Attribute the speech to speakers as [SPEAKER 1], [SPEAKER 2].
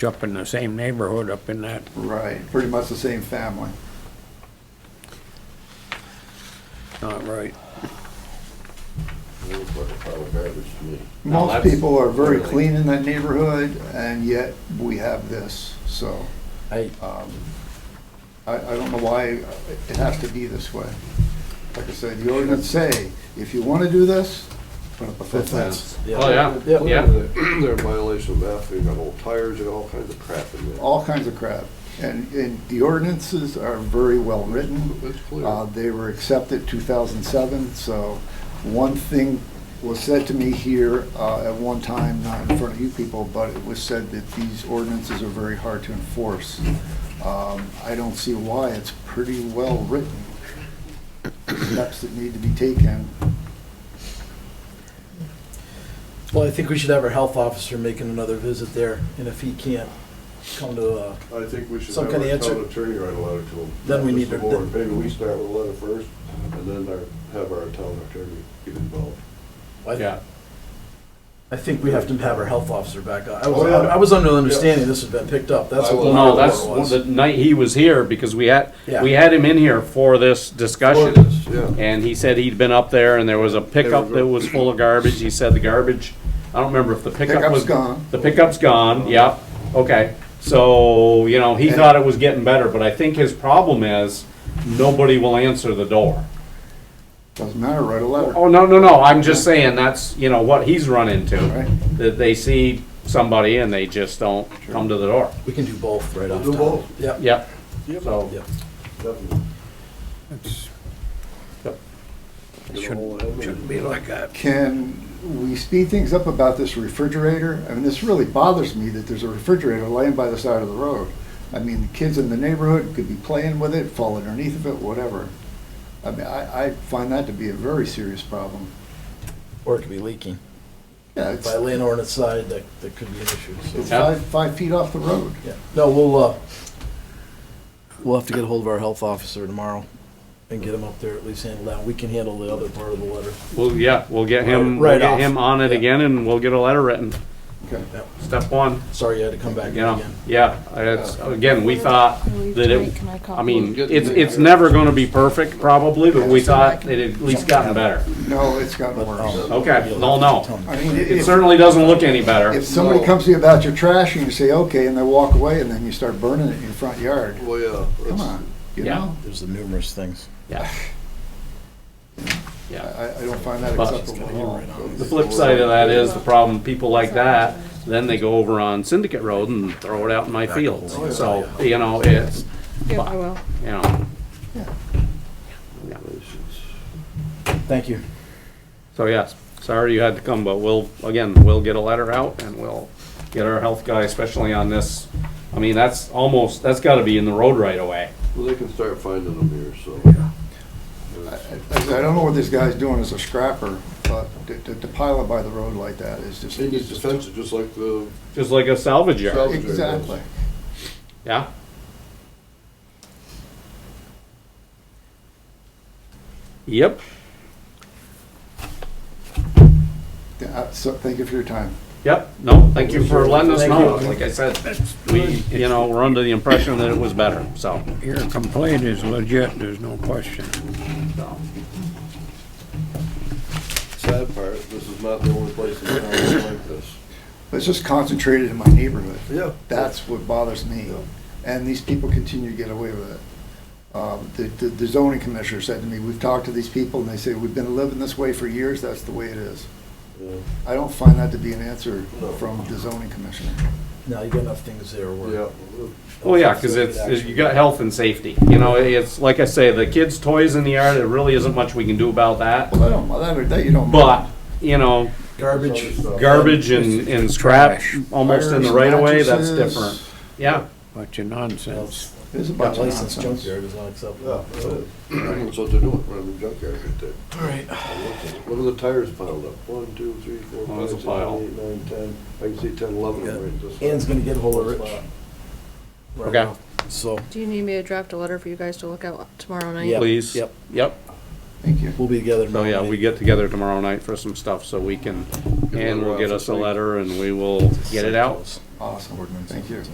[SPEAKER 1] up in the same neighborhood up in that.
[SPEAKER 2] Right, pretty much the same family.
[SPEAKER 1] Not right.
[SPEAKER 3] It looks like a pile of garbage to me.
[SPEAKER 4] Now,
[SPEAKER 2] Most
[SPEAKER 4] that's
[SPEAKER 2] people are very
[SPEAKER 4] really-
[SPEAKER 2] clean in that neighborhood, and yet we have this, so,
[SPEAKER 4] I,
[SPEAKER 3] Oh,
[SPEAKER 2] um, I, I don't know why it has to be this way. Like I said, the ordinance say, if you wanna do this, put up a fifth fence.
[SPEAKER 5] Oh, yeah.
[SPEAKER 3] Clearly,
[SPEAKER 5] Yeah.
[SPEAKER 3] They're they're in violation of that, they got old tires and all kinds of crap in there.
[SPEAKER 2] All kinds of crap, and, and the ordinances are very well written.
[SPEAKER 3] It's clear.
[SPEAKER 2] Uh, They were accepted 2007, so one thing was said to me here uh, at one time, not in front of you people, but it was said that these ordinances are very hard to enforce. Um, I don't see why, it's pretty well written. Steps that need to be taken.
[SPEAKER 6] Well, I think we should have our health officer making another visit there, and if he can't come to, uh,
[SPEAKER 3] I think we should
[SPEAKER 6] Some
[SPEAKER 3] have
[SPEAKER 6] kind of
[SPEAKER 3] our
[SPEAKER 6] answer-
[SPEAKER 3] town attorney write a letter to them.
[SPEAKER 6] Then we
[SPEAKER 3] Mr.
[SPEAKER 6] need to-
[SPEAKER 3] Moore, Maybe we start with a letter first, and then our- have our town attorney get involved.
[SPEAKER 6] I, I think we have to have our health officer back on. I
[SPEAKER 3] Oh,
[SPEAKER 6] was,
[SPEAKER 3] yeah.
[SPEAKER 6] I was under the understanding this had been picked up, that's
[SPEAKER 3] I
[SPEAKER 6] what.
[SPEAKER 3] will-
[SPEAKER 5] No,
[SPEAKER 6] what it
[SPEAKER 5] that's
[SPEAKER 6] was.
[SPEAKER 5] the night he was here because we had,
[SPEAKER 6] Yeah.
[SPEAKER 5] we had him in here for this discussion.
[SPEAKER 3] Ordinance, Yeah.
[SPEAKER 5] And he said he'd been up there and there was a pickup that was full of garbage. He said the garbage, I don't remember if the pickup
[SPEAKER 2] Pickup's
[SPEAKER 5] was.
[SPEAKER 2] gone.
[SPEAKER 5] The pickup's gone, yep, okay. So, you know, he thought it was getting better, but I think his problem is nobody will answer the door.
[SPEAKER 2] Doesn't matter, write a letter.
[SPEAKER 5] Oh, no, no, no, I'm just saying that's, you know, what he's run into.
[SPEAKER 2] Right.
[SPEAKER 5] That they see somebody and they just don't come to the door.
[SPEAKER 6] We can do both right off
[SPEAKER 3] Do
[SPEAKER 6] top.
[SPEAKER 3] both.
[SPEAKER 6] Yep,
[SPEAKER 5] Yep,
[SPEAKER 3] Yep.
[SPEAKER 5] so.
[SPEAKER 6] yep.
[SPEAKER 3] Definitely.
[SPEAKER 1] It's-
[SPEAKER 5] Yep.
[SPEAKER 3] Get a
[SPEAKER 1] Shouldn't-
[SPEAKER 3] hold of them.
[SPEAKER 1] Shouldn't be like that.
[SPEAKER 2] Can we speed things up about this refrigerator? I mean, this really bothers me that there's a refrigerator laying by the side of the road. I mean, the kids in the neighborhood could be playing with it, fall underneath of it, whatever. I mean, I, I find that to be a very serious problem.
[SPEAKER 6] Or it could be leaking.
[SPEAKER 2] Yeah,
[SPEAKER 6] If I
[SPEAKER 2] it's,
[SPEAKER 6] lay an ordinance side, that, that could be an issue, so,
[SPEAKER 2] it's five, five feet off the road.
[SPEAKER 6] yeah. No, we'll, uh, we'll have to get hold of our health officer tomorrow and get him up there, at least handle that. We can handle the other part of the letter.
[SPEAKER 5] Well, yeah, we'll get him,
[SPEAKER 6] Right
[SPEAKER 5] we'll get
[SPEAKER 6] off.
[SPEAKER 5] him on it
[SPEAKER 6] Yeah.
[SPEAKER 5] again and we'll get a letter written.
[SPEAKER 2] Okay.
[SPEAKER 5] Step one,
[SPEAKER 6] Sorry you had to come back
[SPEAKER 5] you
[SPEAKER 6] in
[SPEAKER 5] know,
[SPEAKER 6] again.
[SPEAKER 5] yeah, it's, again, we thought that it,
[SPEAKER 7] Can I call?
[SPEAKER 5] I mean, it's, it's never gonna be perfect probably, but we thought it had at least gotten better.
[SPEAKER 2] No, it's gotten
[SPEAKER 6] But, um,
[SPEAKER 2] worse.
[SPEAKER 5] Okay,
[SPEAKER 6] you'll
[SPEAKER 5] no,
[SPEAKER 6] have to tell
[SPEAKER 5] no.
[SPEAKER 6] me.
[SPEAKER 2] I mean,
[SPEAKER 5] It
[SPEAKER 2] if,
[SPEAKER 5] certainly doesn't look any better.
[SPEAKER 2] if somebody comes to you about your trash and you say, okay, and they walk away and then you start burning it in your front yard,
[SPEAKER 3] Well, yeah.
[SPEAKER 2] come
[SPEAKER 3] it's-
[SPEAKER 2] on, you
[SPEAKER 5] Yeah.
[SPEAKER 2] know?
[SPEAKER 6] There's the numerous things.
[SPEAKER 5] Yeah. Yeah.
[SPEAKER 2] I, I don't find that
[SPEAKER 5] But-
[SPEAKER 2] acceptable at all.
[SPEAKER 5] The flip side of that is the problem, people like that, then they go over on Syndicate Road and throw it out in my fields. So, you know, it's,
[SPEAKER 7] Yeah, I will.
[SPEAKER 5] you know.
[SPEAKER 2] Yeah.
[SPEAKER 5] Yeah.
[SPEAKER 6] Thank you.
[SPEAKER 5] So yes, sorry you had to come, but we'll, again, we'll get a letter out and we'll get our health guy, especially on this. I mean, that's almost, that's gotta be in the road right away.
[SPEAKER 3] Well, they can start finding them here, so.
[SPEAKER 2] I I- I don't know what this guy's doing as a scrapper, but to- to to pile it by the road like that is just.
[SPEAKER 3] They need to fence it just like the
[SPEAKER 5] Just like a salvage yard,
[SPEAKER 3] Salvage.
[SPEAKER 2] Exactly.
[SPEAKER 5] yeah? Yep,
[SPEAKER 2] Yeah, I- So, thank you for your time.
[SPEAKER 5] yep, no, thank you for letting us
[SPEAKER 6] Thank
[SPEAKER 5] know.
[SPEAKER 6] you.
[SPEAKER 5] Like I said, we, you know, we're under the impression that it was better, so.
[SPEAKER 1] Your complaint is legit, there's no question.
[SPEAKER 5] so.
[SPEAKER 3] sad part, this is not the only place in town that's like this.
[SPEAKER 2] It's just concentrated in my neighborhood.
[SPEAKER 3] Yeah.
[SPEAKER 2] That's what bothers me. And these people continue to get away with it. Um, the- The the zoning commissioner said to me, we've talked to these people, and they say, we've been living this way for years, that's the way it is.
[SPEAKER 3] Yeah.
[SPEAKER 2] I don't find that to be an answer
[SPEAKER 3] No.
[SPEAKER 2] from the zoning commissioner.
[SPEAKER 6] Now you got enough things there where.
[SPEAKER 3] Yeah.
[SPEAKER 5] Well, Oh, yeah, because it's, it's- you got health and safety, you know, it's, like I say, the kids' toys in the yard, there really isn't much we can do about that.
[SPEAKER 2] Well, I don't, that- that you don't.
[SPEAKER 5] But, you know,
[SPEAKER 6] Garbage.
[SPEAKER 5] garbage and, and scrap, almost in the right of way, that's
[SPEAKER 2] Mattresses.
[SPEAKER 5] different. Yeah,
[SPEAKER 1] Bunch of nonsense.
[SPEAKER 2] It's a bunch
[SPEAKER 6] Got
[SPEAKER 2] of
[SPEAKER 6] licensed
[SPEAKER 2] nonsense.
[SPEAKER 6] junkyard is not
[SPEAKER 3] Yeah,
[SPEAKER 6] acceptable.
[SPEAKER 3] that's what they're doing, running the junkyard right there.
[SPEAKER 6] All right.
[SPEAKER 3] What are the tires piled up? One, two, three, four,
[SPEAKER 5] Oh,
[SPEAKER 3] five,
[SPEAKER 5] that's a
[SPEAKER 3] six,
[SPEAKER 5] pile.
[SPEAKER 3] seven, eight, nine, ten. I can see ten, eleven of them right this.
[SPEAKER 6] Ann's gonna get hold of Rich. right
[SPEAKER 5] Okay.
[SPEAKER 6] now. So,
[SPEAKER 7] Do you need me to draft a letter for you guys to look out tomorrow night?
[SPEAKER 6] Yep,
[SPEAKER 5] please.
[SPEAKER 6] yep.
[SPEAKER 5] Yep.
[SPEAKER 2] Thank you.
[SPEAKER 6] we'll be together.
[SPEAKER 5] So, yeah,
[SPEAKER 6] tomorrow
[SPEAKER 5] we
[SPEAKER 6] night.
[SPEAKER 5] get together tomorrow night for some stuff, so we can, and will get us a letter and we will get it out.
[SPEAKER 2] Awesome. Thank you.